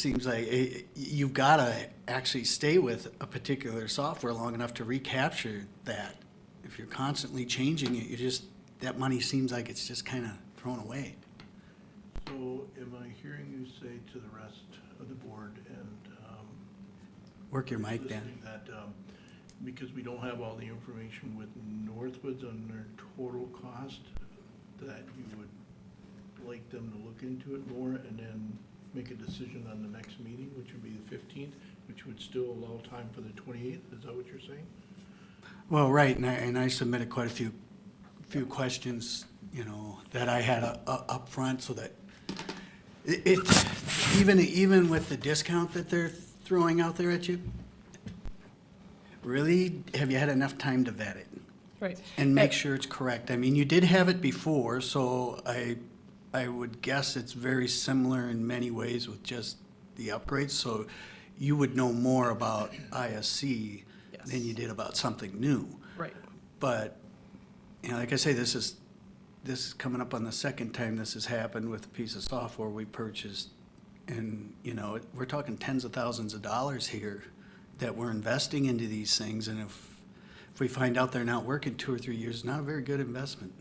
seems like it, you've got to actually stay with a particular software long enough to recapture that. If you're constantly changing it, you just, that money seems like it's just kind of thrown away. So am I hearing you say to the rest of the board and, um. Work your mic, Dan. listening That, um, because we don't have all the information with Northwoods on their total cost, that you would like them to look into it more and then make a decision on the next meeting, which would be the fifteenth, which would still allow time for the twenty-eighth, is that what you're saying? Well, right, and I, and I submitted quite a few, few questions, you know, that I had u- u- up front, so that it, it- even, even with the discount that they're throwing out there at you, really, have you had enough time to vet it Right. and make sure it's correct? I mean, you did have it before, so I, I would guess it's very similar in many ways with just the upgrades, so you would know more about ISC than Yes. you did about something new. Right, But, you know, like I say, this is, this is coming up on the second time this has happened with a piece of software we purchased. And, you know, it- we're talking tens of thousands of dollars here that we're investing into these things. And if, if we find out they're not working two or three years, it's not a very good investment.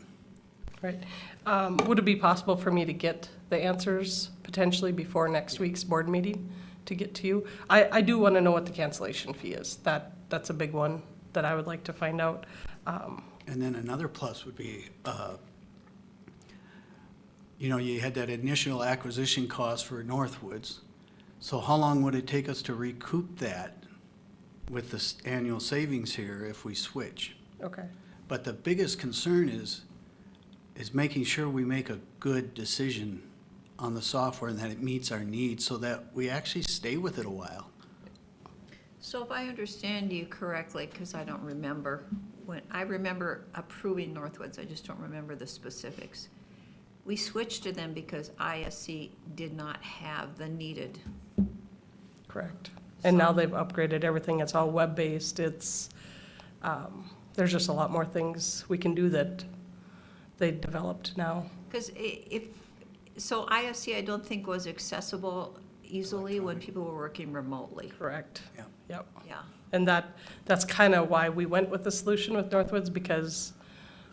right. Um, Would it be possible for me to get the answers potentially before next week's board meeting to get to you? I, I do want to know what the cancellation fee is. That, that's a big one that I would like to find out. Um, And then another plus would be, uh, you know, you had that initial acquisition cost for Northwoods. So how long would it take us to recoup that with this annual savings here if we switch? Okay, But the biggest concern is, is making sure we make a good decision on the software and that it meets our needs so that we actually stay with it a while. So if I understand you correctly, because I don't remember, when, I remember approving Northwoods, I just don't remember the specifics. We switched to them because ISC did not have the needed, correct. And now they've upgraded everything. It's all web-based. It's, um, there's just a lot more things we can do that they developed now. because if, so ISC I don't think was accessible easily when people were working remotely, Correct. Yeah. Yep. yeah. And that, that's kind of why we went with the solution with Northwoods, because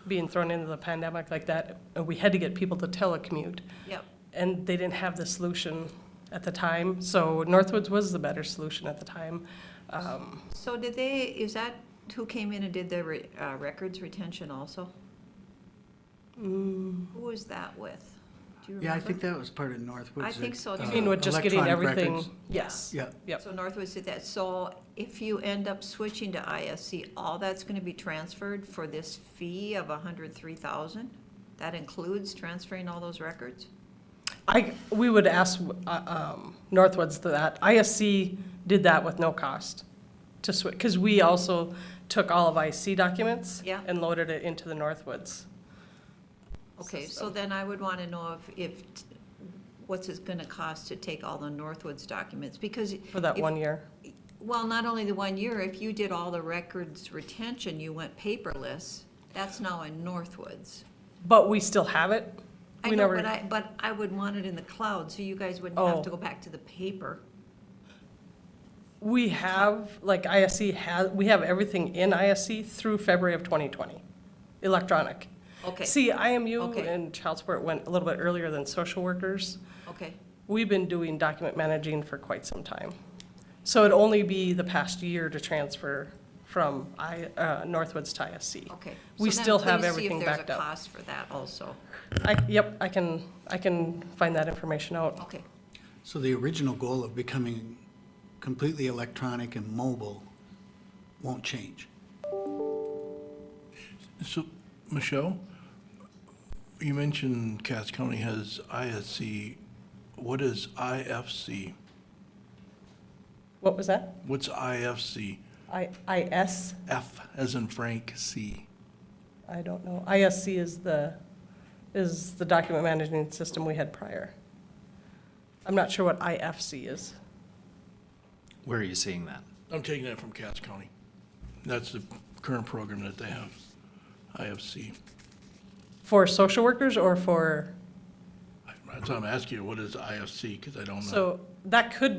being thrown into the pandemic like that, uh, we had to get people to telecommute. Yep, And they didn't have the solution at the time, so Northwoods was the better solution at the time. Um, so did they, is that who came in and did the re- uh, records retention also? Mm. Who was that with? Do you remember? Yeah, I think that was part of Northwoods. I think so, I too. uh, mean, with just getting electronic everything, records. yes. Yeah, Yep, So Northwoods did that, so if you end up switching to ISC, all that's gonna be transferred for this fee of a hundred three thousand? That includes transferring all those records? I, we would ask uh, um, Northwoods to that. ISC did that with no cost to switch, because we also took all of IC documents Yeah. and loaded it into the Northwoods. Okay, so System. then I would wanna know if, if, what's it gonna cost to take all the Northwoods documents? Because, For that If- one year. well, not only the one year, if you did all the records retention, you went paperless, that's now in Northwoods. But we still have it. I We know, never- but I, but I would want it in the cloud, so you guys wouldn't have Oh. to go back to the paper. We have, like ISC has, we have everything in ISC through February of 2020, electronic. Okay, See, IMU Okay. and child support went a little bit earlier than social workers. okay. We've been doing document managing for quite some time. So it'd only be the past year to transfer from I, uh, Northwoods to ISC. Okay. We So then still have please see if everything backed There's a up. cost for that also. I, yep, I can, I can find that information out. Okay, so the original goal of becoming completely electronic and mobile won't change. So, Michelle, you mentioned Cass County has ISC. What is IFC? What was that? What's IFC? I, IS? F as in Frank, C. I don't know. ISC is the, is the document management system we had prior. I'm not sure what IFC is. Where are you seeing that? I'm taking that from Cass County. That's the current program that they have, IFC. For social workers or for, That's why I'm asking you, what is IFC? Because I don't know. so that could